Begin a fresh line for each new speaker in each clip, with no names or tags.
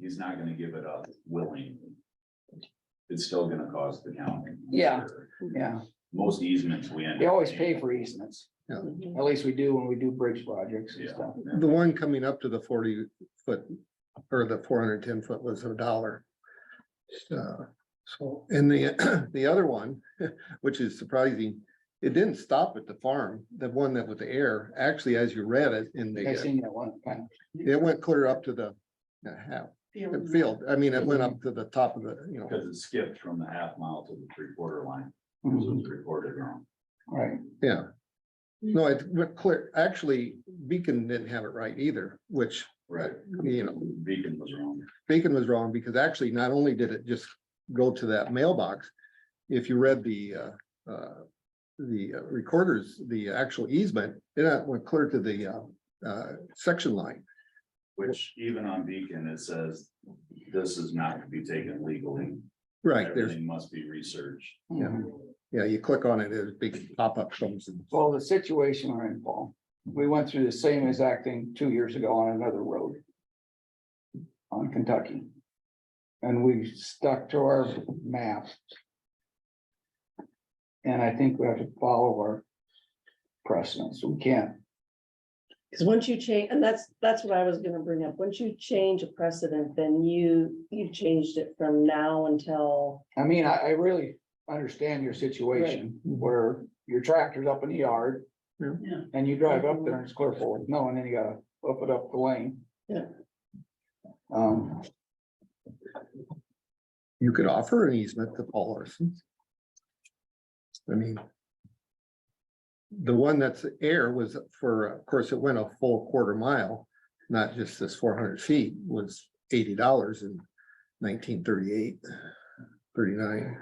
he's not gonna give it up willingly. It's still gonna cost the county.
Yeah. yeah,
Most easements we end. up
they always
paying.
pay for easements,
Mhm.
at least we do when we do bridge projects and
Yeah.
stuff.
The one coming up to the forty foot or the four hundred ten foot was a dollar. So, so, and the, the other one, which is surprising, it didn't stop at the farm, the one that with the air, actually, as you read it in
I
the, uh,
seen that one, kind of,
it went clear up to the the half, the field. I mean, it went up to the top of the, you know,
Because it skipped from the half mile to the three quarter line, it
Mhm.
was recorded wrong.
right,
yeah. No, it went clear, actually Beacon didn't have it right either, which,
Right.
you know,
Beacon was wrong.
Bacon was wrong because actually not only did it just go to that mailbox, if you read the uh, uh, the uh, recorders, the actual easement, it uh, went clear to the uh, uh, section line.
Which even on Beacon, it says this is not to be taken legally.
Right, there's,
Everything must be researched.
Yeah.
mhm.
yeah, you click on it, there's big pop-up comes and
Well, the situation we're in, Paul, we went through the same exact thing two years ago on another road. On Kentucky. And we stuck to our map. And I think we have to follow our precedents, we can't,
Because
once you change, and that's, that's what I was gonna bring up, once you change a precedent, then you, you changed it from now until.
I mean, I, I really understand your situation where your tractor's up in the yard.
Yeah.
Yeah.
And you drive up there and it's clear forward, no, and then you gotta up it up the lane.
Yeah.
Um,
you could offer an easement to Paul Larson's. I mean. The one that's air was for, of course, it went a full quarter mile, not just this four hundred feet was eighty dollars in nineteen thirty-eight, thirty-nine.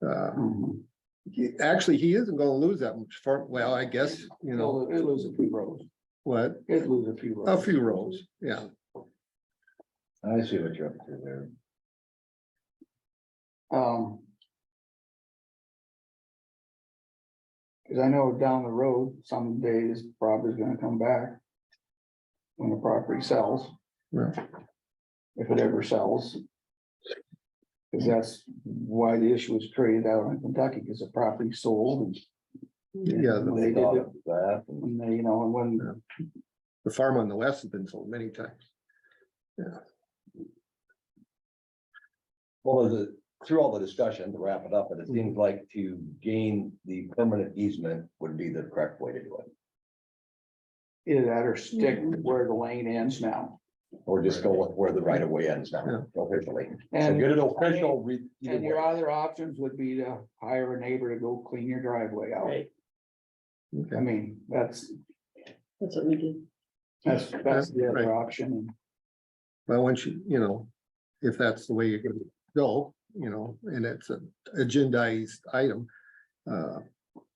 Uh,
mhm.
he- actually, he isn't gonna lose that much far, well, I guess, you know,
It'll- it'll lose a few rows.
what,
It lose a few
a
rows.
few rows, yeah.
I see what you're up to there.
Um. Cause I know down the road, some days property's gonna come back. When the property sells.
Yeah.
If it ever sells. Cause that's why the issue was created out in Kentucky, cause the property sold and.
Yeah,
When they did it, when they, you know, and when,
The farm on the west has been sold many times.
Well, the, through all the discussion, to wrap it up, it seems like to gain the permanent easement would be the correct way to do it.
either that or stick where the lane ends now.
Or just go with where the right of way ends
Yeah.
now officially. So
And
get an official. re- either
And your
way.
other options would be to hire a neighbor to go clean your driveway out. I
Okay,
mean, that's,
That's what we did.
that's, that's the
Right.
other option.
Well, once you, you know, if that's the way you're gonna go, you know, and it's an agendized item. Uh,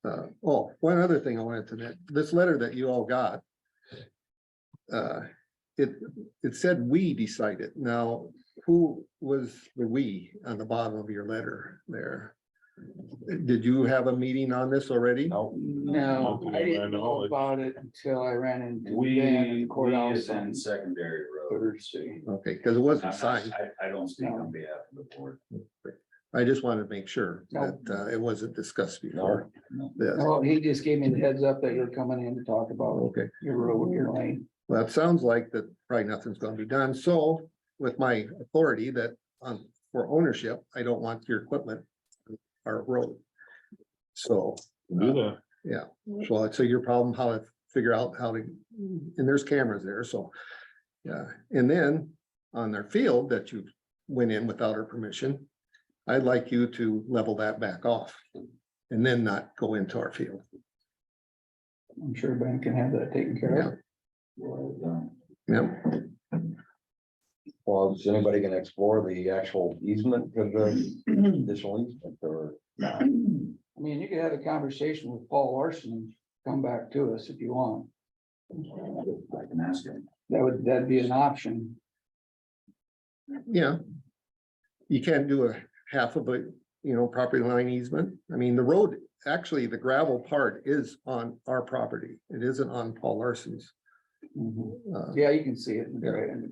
uh, oh, one other thing I wanted to, mention, this letter that you all got. Uh, it, it said we decided. Now, who was the we on the bottom of your letter there? Did you have a meeting on this already?
No,
No, I didn't know about it until I ran into Dan in
We,
the
we
courthouse on
send secondary road.
Thursday.
Okay, because it
I'm
wasn't
not-
signed.
I, I don't speak on behalf of the board.
I just wanted to make sure
No.
that uh, it wasn't discussed before.
No.
This.
Well, he just gave me the heads up that you're coming in to talk about
Oh, Okay.
your road, your lane.
Well, it sounds like that probably nothing's gonna be done, so with my authority that on for ownership, I don't want your equipment. Or road. So, uh,
Do that.
so it's a your problem how to figure out how to, and there's cameras there, so. Yeah, and then on their field that you went in without our permission, I'd like you to level that back off. And then not go into our field.
I'm sure Ben can have that taken care of.
Well,
Yeah,
well, is anybody gonna explore the actual easement of the additional easement or?
I mean, you could have a conversation with Paul Larson, and come back to us if you want.
I can ask him.
That would, that'd be an option.
Yeah. You can't do a half of a, you know, property line easement. I mean, the road, actually, the gravel part is on our property. It isn't on Paul Larson's.
Mhm.
uh,
Yeah, you can see it in the
Yeah.
gray- in the